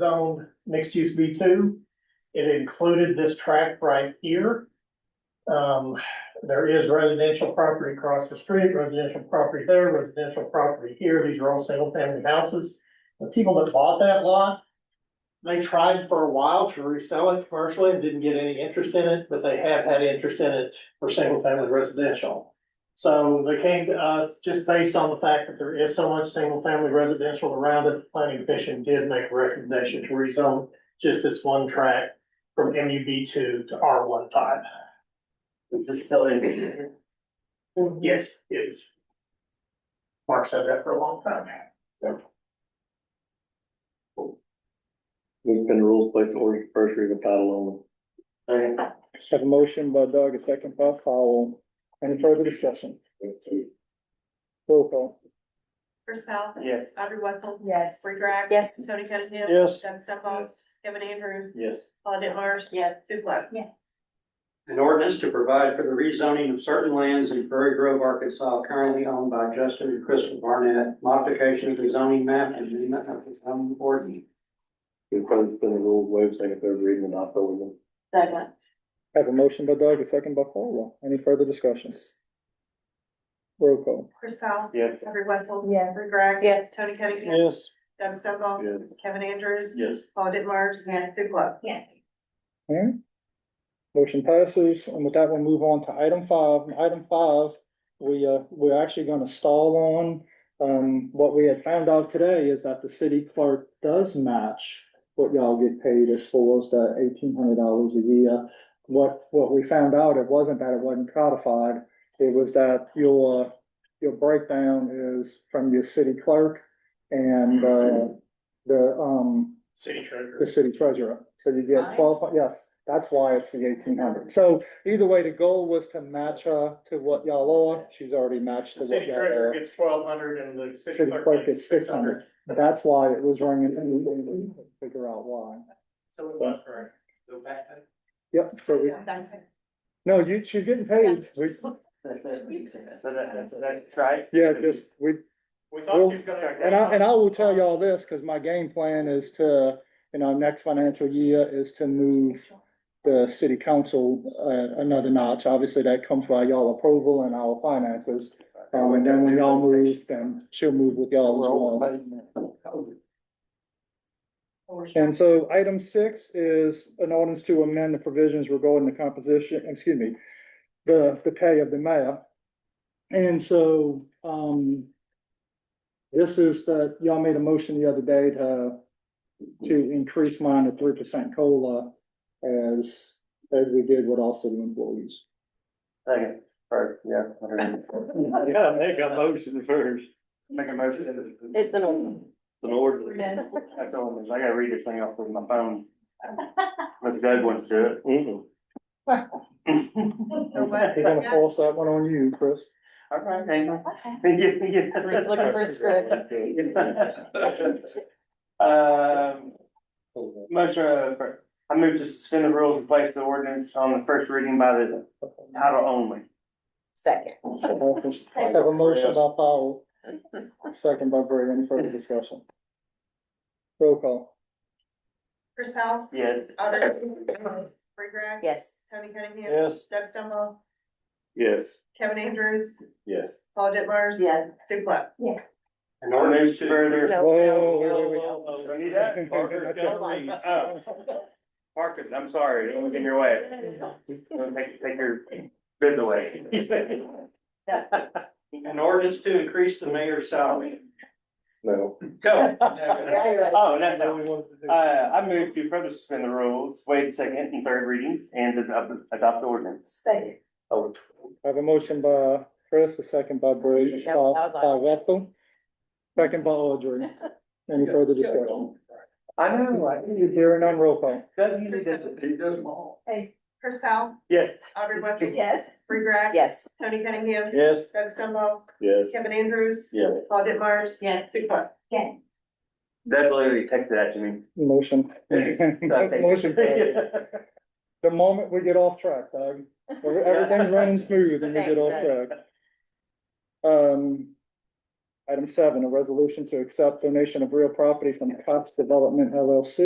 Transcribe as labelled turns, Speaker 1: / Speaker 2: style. Speaker 1: zone mixed use B two. It included this tract right here. Um, there is residential property across the street, residential property there, residential property here. These are all single family houses. The people that bought that lot. They tried for a while to resell it commercially and didn't get any interest in it, but they have had interest in it for single family residential. So they came to us just based on the fact that there is so much single family residential around it. The Planning commission did make a recommendation to rezone just this one tract from MUB two to R one five.
Speaker 2: Is this still in?
Speaker 1: Yes, it is. Mark said that for a long time.
Speaker 3: We've been rules place order first read of title only.
Speaker 2: Okay.
Speaker 4: Have a motion by Doug, a second by Powell. Any further discussion? Roll call.
Speaker 5: Chris Powell.
Speaker 2: Yes.
Speaker 5: Audrey Wetzel,
Speaker 6: Yes.
Speaker 5: Free Greg.
Speaker 6: Yes.
Speaker 5: Tony Cunningham.
Speaker 4: Yes.
Speaker 5: Doug Stumbaugh. Kevin Andrews.
Speaker 3: Yes.
Speaker 5: Paul DeMars. Yes. Sue Pluck.
Speaker 2: An ordinance to provide for the rezoning of certain lands in Prairie Grove, Arkansas, currently owned by Justin and Crystal Barnett. Modification of the zoning map and amendment of the zoning board.
Speaker 3: We've probably been rules waive second, third reading and not over them.
Speaker 5: Second.
Speaker 4: Have a motion by Doug, a second by Paul. Any further discussion? Roll call.
Speaker 5: Chris Powell.
Speaker 3: Yes.
Speaker 5: Audrey Wetzel.
Speaker 6: Yes.
Speaker 5: Free Greg.
Speaker 6: Yes.
Speaker 5: Tony Cunningham.
Speaker 4: Yes.
Speaker 5: Doug Stumbaugh.
Speaker 3: Yes.
Speaker 5: Kevin Andrews.
Speaker 3: Yes.
Speaker 5: Paul DeMars. Yes. Sue Pluck.
Speaker 6: Yes.
Speaker 4: Alright. Motion passes, and with that, we'll move on to item five. And Item five, we, uh, we're actually gonna stall on. Um, what we had found out today is that the city clerk does match what y'all get paid as far as the eighteen hundred dollars a year. What, what we found out, it wasn't that it wasn't codified, it was that your, your breakdown is from your city clerk and, uh, the, um,
Speaker 1: City treasurer.
Speaker 4: the city treasurer. So you get
Speaker 6: Why?
Speaker 4: twelve, yes, that's why it's the eighteen hundred. So either way, the goal was to match her to what y'all are. She's already matched to
Speaker 1: The
Speaker 4: what
Speaker 1: city
Speaker 4: y'all
Speaker 1: treasurer
Speaker 4: are.
Speaker 1: gets twelve hundred and the
Speaker 4: City clerk gets six hundred. That's why it was running, and we couldn't figure out why.
Speaker 1: So it was correct.
Speaker 2: Go back.
Speaker 4: Yep, so we, no, you, she's getting paid. We,
Speaker 2: So that, so that's right.
Speaker 4: yeah, just, we,
Speaker 1: We
Speaker 4: Well,
Speaker 1: thought you were gonna.
Speaker 4: And I, and I will tell y'all this, cause my game plan is to, in our next financial year, is to move the city council, uh, another notch. Obviously, that comes by y'all approval and our finances. Um, and then when y'all move, then she'll move with y'all as well. And so item six is an ordinance to amend the provisions regarding the composition, excuse me, the, the pay of the mayor. And so, um, this is the, y'all made a motion the other day to, to increase mine to three percent COLA as, as we did with all city employees.
Speaker 2: Second, or, yeah. whatever.
Speaker 3: You gotta make a motion first.
Speaker 2: Make a motion.
Speaker 6: It's an old.
Speaker 3: It's An order.
Speaker 2: That's all, I gotta read this thing off with my phone. Unless Doug wants to do it.
Speaker 3: Mm-mm.
Speaker 5: No way.
Speaker 4: They're gonna force that one on you, Chris.
Speaker 2: All right, hang on. He's
Speaker 6: He's looking for a script.
Speaker 2: Um, motion, uh, for- I move to suspend the rules and place the ordinance on the first reading by the title only.
Speaker 6: Second.
Speaker 4: I Have a motion by Powell, second by Bray. Any further discussion? Roll call.
Speaker 5: Chris Powell.
Speaker 2: Yes.
Speaker 5: Audrey. Wetzel, Free Greg.
Speaker 6: Yes.
Speaker 5: Tony Cunningham.
Speaker 4: Yes.
Speaker 5: Doug Stumbaugh.
Speaker 3: Yes.
Speaker 5: Kevin Andrews.
Speaker 3: Yes.
Speaker 5: Paul DeMars.
Speaker 6: Yes.
Speaker 5: Sue Pluck.
Speaker 2: An ordinance to further.
Speaker 6: No.
Speaker 4: Whoa, wait, wait, wait.
Speaker 2: Do I need that? Parker, don't read. Oh. Parker, I'm sorry, it was in your way. Don't take, take your bid away. An ordinance to increase the mayor's salary.
Speaker 3: No.
Speaker 2: Go.
Speaker 6: right.
Speaker 2: Oh, no, no, we want to do. Uh, I move to further suspend the rules, waive second and third readings, and ad- adopt the ordinance.
Speaker 6: Second.
Speaker 3: Oh,
Speaker 4: I have a motion by Chris, a second by Bray,
Speaker 6: That
Speaker 4: by
Speaker 6: was
Speaker 4: by Ethel, second by Audrey. Any further discussion?
Speaker 2: I know, I,
Speaker 4: Hearing none, roll call.
Speaker 2: Doug usually does it. He does them all.
Speaker 6: Hey.
Speaker 5: Chris Powell.
Speaker 2: Yes.
Speaker 5: Audrey Wetzel.
Speaker 6: Yes.
Speaker 5: Free Greg.
Speaker 6: Yes.
Speaker 5: Tony Cunningham.
Speaker 4: Yes.
Speaker 5: Doug Stumbaugh.
Speaker 3: Yes.
Speaker 5: Kevin Andrews.
Speaker 3: Yes.
Speaker 5: Paul DeMars. Yes. Sue Pluck.
Speaker 2: Doug literally texted that to me.
Speaker 4: Motion. Motion. carries. The moment we get off track, Doug, we're- everything's running smooth and we get off track. Um, item seven, a resolution to accept donation of real property from Cox Development LLC